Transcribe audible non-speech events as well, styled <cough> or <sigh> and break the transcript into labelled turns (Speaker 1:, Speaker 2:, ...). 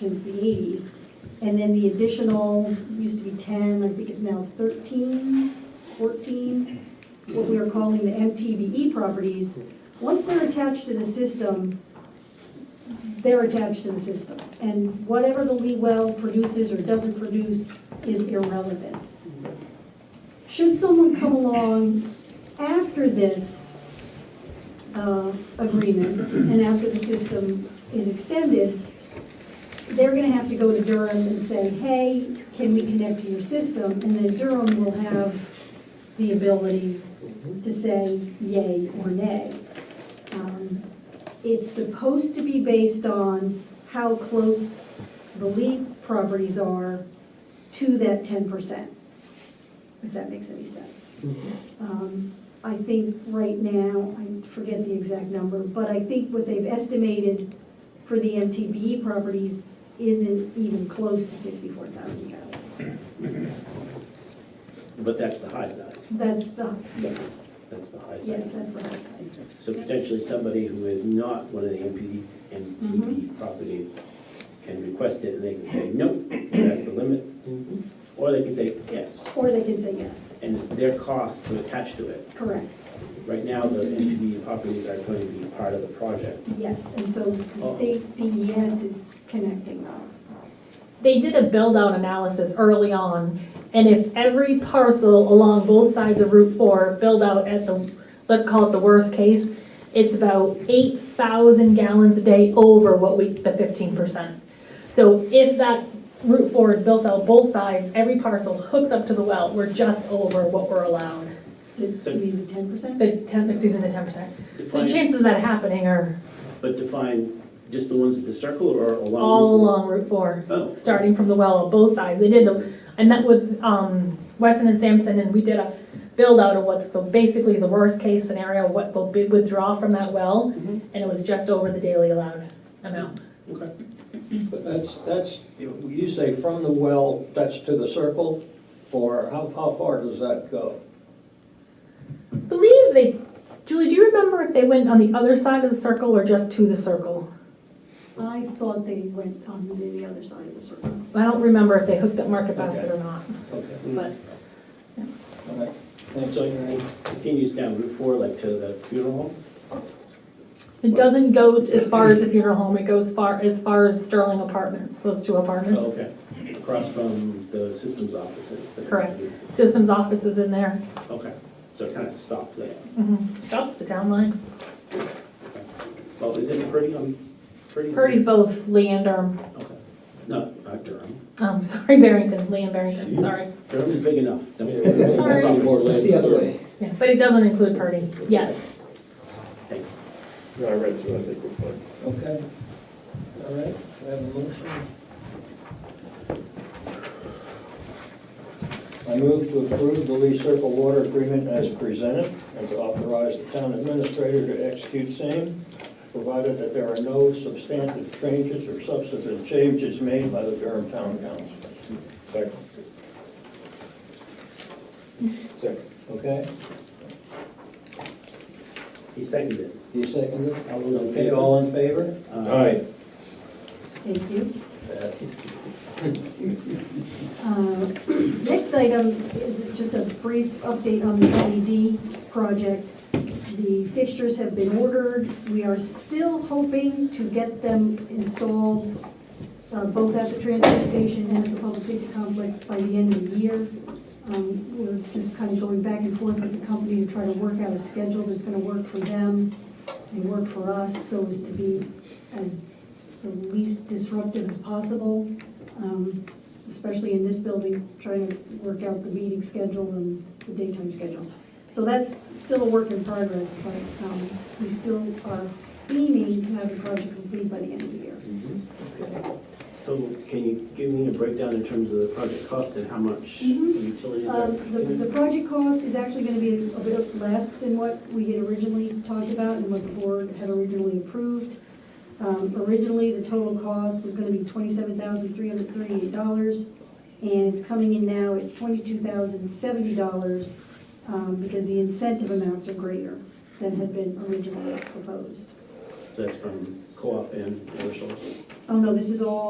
Speaker 1: since the eighties. And then the additional, used to be ten, I think it's now 13, 14. what we are calling the MTBE E properties. Once they're attached to the system, they're attached to the system. And whatever the Lee well produces or doesn't produce is irrelevant. Should someone come along after this uh, agreement and after the system is extended, they're gonna have to go to Durham and say, hey, can we connect to your system? And then Durham will have the ability to say yay or nay. Um, It's supposed to be based on how close the lead properties are to that ten percent, if that makes any sense. Um, I think right now, I forget the exact number, but I think what they've estimated for the MTBE properties isn't even close to sixty-four thousand gallons.
Speaker 2: But that's the high side,
Speaker 1: That's the, yes,
Speaker 2: that's the high
Speaker 1: yes,
Speaker 2: side.
Speaker 1: that's the high side.
Speaker 2: So potentially somebody who is not one of the MPD,
Speaker 3: Mm-hmm.
Speaker 2: MTB properties can request it, and they can say, nope, that's the limit.
Speaker 3: Mm-hmm.
Speaker 2: Or they can say, yes,
Speaker 1: Or they can say yes,
Speaker 2: and it's their cost to attach to it.
Speaker 1: correct,
Speaker 2: Right now, the MPD properties are going to be part of the project.
Speaker 1: yes, and so the state DES is connecting them.
Speaker 3: they did a build-out analysis early on, and if every parcel along both sides of Route 4 build out at the, let's call it the worst case, it's about 8,000 gallons a day over what we, the 15%. So if that Route 4 is built out both sides, every parcel hooks up to the well, we're just over what we're allowed.
Speaker 1: Did, you mean the ten percent?
Speaker 3: The 10, excuse me, the 10%. So
Speaker 2: Define-
Speaker 3: chances of that happening are
Speaker 2: But define just the ones at the circle or along?
Speaker 3: all along Route 4.
Speaker 2: Oh.
Speaker 3: starting from the well on both sides. They did, the- I met with um, Weston and Sampson, and we did a build-out of what's the, basically the worst-case scenario, what will be withdraw from that well,
Speaker 2: Mhm.
Speaker 3: and it was just over the daily allowed amount.
Speaker 2: Okay.
Speaker 4: But that's, that's, you say from the well, that's to the circle, or how, how far does that go?
Speaker 3: I believe they, Julie, do you remember if they went on the other side of the circle or just to the circle?
Speaker 1: I thought they went on the the other side of the circle.
Speaker 3: I don't remember if they hooked up Market Basket
Speaker 4: Okay.
Speaker 3: or not,
Speaker 4: Okay,
Speaker 3: but
Speaker 4: all right.
Speaker 2: And so it continues down Route 4, like to the funeral home?
Speaker 3: it doesn't go as far as the funeral home, it goes far, as far as Sterling Apartments, those two apartments.
Speaker 2: Oh, Okay, across from the systems offices. the
Speaker 3: Correct.
Speaker 2: computer system.
Speaker 3: Systems office is in there.
Speaker 2: Okay, so it kind of stopped there.
Speaker 3: Mhm. Stops at the town line.
Speaker 2: Well, is it Purdy on, Purdy's?
Speaker 3: Purdy's both Lee and Durham.
Speaker 2: Okay. No, not Durham.
Speaker 3: Um, <laughs> sorry, Barrington, Lee and Barrington, sorry.
Speaker 2: Durham is big enough.
Speaker 3: Sorry.
Speaker 2: Don't-
Speaker 4: More land.
Speaker 5: The other way.
Speaker 3: Yeah, But it doesn't include Purdy yet.
Speaker 2: Thanks.
Speaker 6: No, I read through, I think we're fine.
Speaker 4: Okay, all right, we have a motion. I move to approve the Lee Circle Water Agreement as presented, and to authorize the town administrator to execute same, provided that there are no substantive changes or substantive changes made by the Durham Town Council.
Speaker 6: Second. Second.
Speaker 4: Okay,
Speaker 2: He seconded it.
Speaker 4: you seconded?
Speaker 2: All those in
Speaker 4: Okay,
Speaker 2: favor?
Speaker 4: all in favor?
Speaker 2: Uh,
Speaker 6: All right,
Speaker 1: Thank you.
Speaker 4: Uh,
Speaker 1: Uh, <clears throat> Next item is just a brief update on the LED project. The fixtures have been ordered. We are still hoping to get them installed uh, both at the transfer station and at the public safety complex by the end of the year. Um, We're just kind of going back and forth with the company to try to work out a schedule that's going to work for them and work for us so as to be as the least disruptive as possible. Um, especially in this building, trying to work out the meeting schedule and the daytime schedule. So that's still a work in progress, but um, we still are aiming to have the project complete by the end of the year.
Speaker 2: Mm-hmm. So can you give me a breakdown in terms of the project cost and how much
Speaker 1: Mhm.
Speaker 2: utilities are?
Speaker 1: Um, The the project cost is actually going to be a bit less than what we had originally talked about and what the board had originally approved. Um, Originally, the total cost was going to be $27,338, and it's coming in now at $22,070 um, because the incentive amounts are greater than had been originally proposed.
Speaker 2: That's from co-op and commercial?
Speaker 1: Oh, no, this is all